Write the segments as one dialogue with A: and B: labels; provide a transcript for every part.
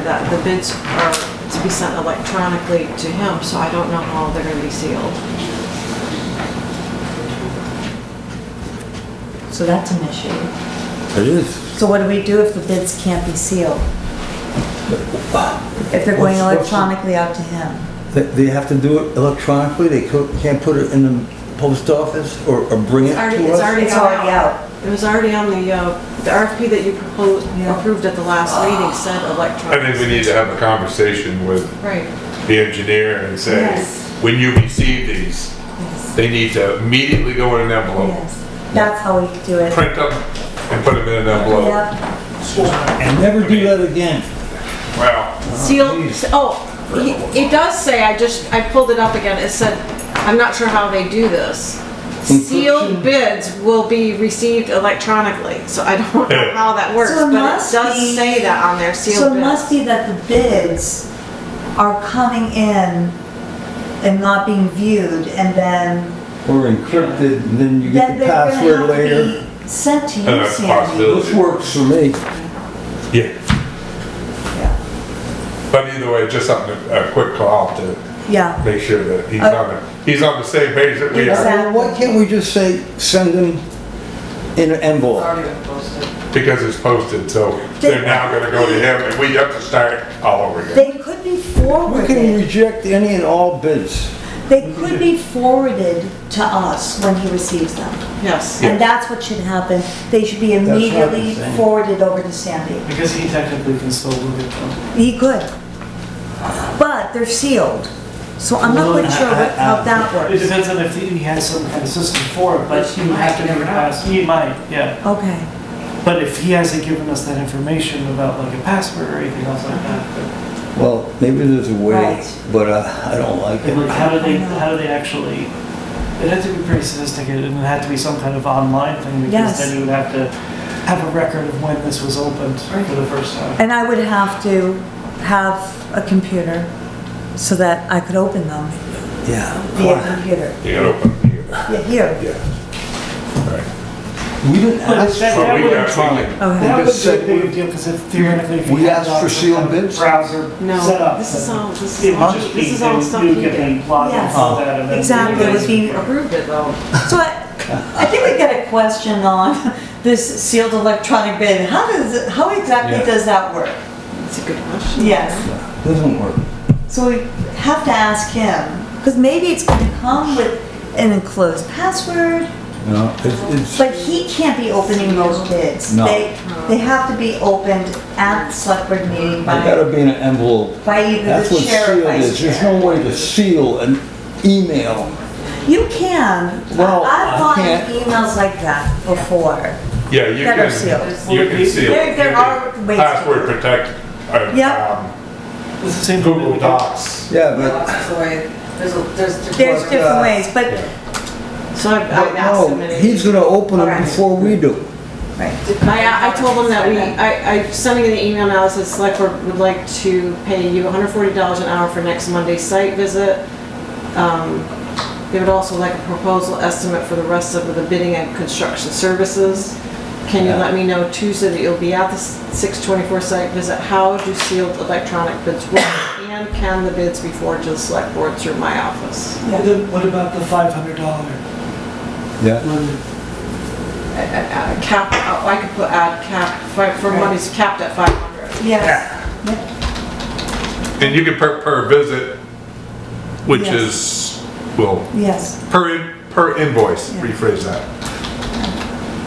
A: that the bids are to be sent electronically to him, so I don't know how they're gonna be sealed.
B: So that's an issue.
C: It is.
B: So what do we do if the bids can't be sealed? If they're going
C: What's- what's the-
B: electronically out to him?
C: They- They have to do it electronically, they co- can't put it in the post office or or bring it
A: It's already-
C: to
A: it's
C: us?
A: already
B: It's
A: gone
B: already out.
A: It was already on the, uh, the RFP that you proposed,
B: Yeah. Ah.
A: approved at the last meeting said
D: I
A: electronic.
D: think we need to have a conversation with
A: Right,
B: Ah,
D: the engineer and say,
B: Yes.
D: when you receive
B: Yes.
D: these, they need to immediately go in an envelope,
B: Yes. That's how we do it.
D: print them and put them in an envelope.
B: Yep.
C: And never do that again.
D: Well,
A: sealed, oh, he- it does say, I just, I pulled it up again, it said, I'm not sure how they do this.
B: Mm-hmm.
A: Sealed bids will be received electronically, so I don't know how that works,
B: So
A: but
B: it
A: it
B: must
A: does
B: be-
A: say that on there,
B: So
A: sealed
B: it must
A: bids.
B: be that the bids are coming in and not being viewed and then,
C: Or encrypted, and then you get
B: then
C: the
B: they're gonna
C: password
B: have
C: later.
B: to be sent to you,
D: That's
B: Sandy.
D: possibility.
C: This works for me.
D: yeah,
B: Yeah.
D: but either way, just something, a quick call to
B: Yeah,
D: make sure that he's on the, he's on the same page that we are.
B: Exactly.
C: Well, Why can't we just say, send them in an envelope?
D: Because it's posted, so they're now gonna go to him and we have to start all over again.
B: they could be
C: We can
B: forwarded,
C: reject any and all bids.
B: they could be forwarded to us when he receives them.
A: Yes,
D: Yeah.
B: And that's what should happen. They should be
C: what I'm
B: immediately
C: saying.
B: forwarded over to Sandy.
E: Because he technically can still look at them.
B: He could. But they're sealed, so I'm not quite sure what- how that
E: It
B: works.
E: depends on if he has some kind of system for it, but he would have to give us, he might, yeah.
B: Okay,
E: But if he hasn't given us that information about like a password or anything else like that,
C: Well, maybe there's a way,
B: Right.
C: but uh, I don't like
E: but like
C: it.
E: how do they, how do they actually, it'd have to be pretty sophisticated and it'd have to be some kind of online thing
B: Yes.
E: because then you would have to have a record of when this was opened for the first time.
B: and I would have to have a computer so that I could open them via
C: Yeah.
B: computer.
D: You gotta open it here.
B: Yeah, Here,
D: Yeah. All right.
C: We didn't ask
E: that-
C: for
E: that
C: it
E: would-
C: electronic.
B: okay.
E: That
C: They
E: would
C: just
E: be a
C: said
E: big
C: we-
E: deal because if theoretically if you
C: we
E: had
C: asked for
E: some
C: sealed
E: kind of
C: bids?
E: Browser set
A: no,
E: up.
A: this is
E: then-
A: all, this
E: It
A: is all,
E: must be,
A: this is all
E: you-
A: stuff
E: you
A: he
E: get
A: did.
E: the plot
B: Yes.
E: of that and then
B: Exactly,
E: you
B: it would be-
A: He approved it though.
B: So I, I think we get a question on this sealed electronic bid. How does, it- how exactly
C: Yeah.
B: does that work?
A: That's a good question.
B: Yes.
C: Doesn't work.
B: So we have to ask him, because maybe it's going to come with an enclosed password,
C: No, it's, it's,
B: but he can't be opening those bids.
C: No.
B: They, they have to be opened at the select board meeting
C: it
B: by,
C: gotta be in an envelope.
B: by either
C: That's
B: the
C: what
B: chair or
C: sealed is.
B: vice
C: There's
B: chair.
C: no way to seal an email.
B: You can.
C: Well, I
B: I've gotten
C: can't.
B: emails like that before.
D: Yeah, you
B: That
D: can.
B: are sealed.
D: You can seal.
B: There-
D: it.
B: there
D: You
B: are
D: can
B: ways to
D: Password
B: do it.
D: protect,
B: Yep.
D: uh, um,
E: It's the same
D: Google Docs.
C: Yeah, but
F: That's the way, there's, a- there's.
B: There's
C: But,
B: different
C: uh,
B: ways, but,
A: So I've,
C: But
A: I've asked him.
C: no,
A: and
C: he's gonna open it
B: Alright.
C: before we do.
A: I, I told him that we, I, I sending an email now that says select board would like to pay you hundred forty dollars an hour for next Monday's site visit. Um, They would also like a proposal estimate for the rest of the bidding and construction services. Can you
C: Yeah.
A: let me know Tuesday that you'll be at the six twenty-four site visit? How do sealed electronic bids work? And can the bids be forwarded to the select board through my office?
E: Well, then What about the five hundred dollar
C: Yeah.
E: limit?
A: Uh, Cap, oh, I could put add cap, fi- for money's capped at five hundred.
B: yes.
D: And you can per, per visit, which
B: Yes.
D: is, well,
B: Yes,
D: per, in- per invoice, rephrase that.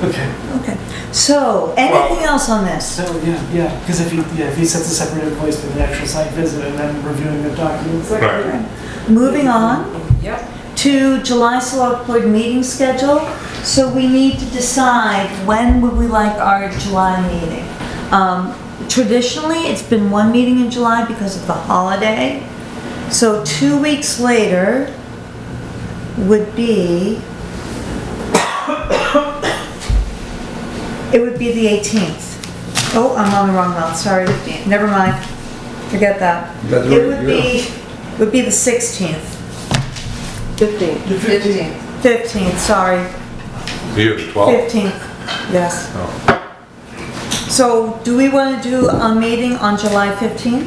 E: Okay,
B: okay. So, anything else on this?
E: so, yeah, yeah, because if he, yeah, if he sets a separate invoice for the actual site visit and then reviewing the documents.
D: Right.
B: Moving on.
F: Yep.
B: to July Select Board meeting schedule, so we need to decide when would we like our July meeting. Um, Traditionally, it's been one meeting in July because of the holiday, so two weeks later would be, it would be the 18th. Oh, I'm on the wrong month, sorry, never mind, forget that.
C: That's
B: It
C: right,
B: would be, would be the 16th.
A: Fifteen.
F: Fifteen.
B: 15th, sorry,
D: You have 12.
B: 15th, yes. So do we want to do a meeting on July 15th?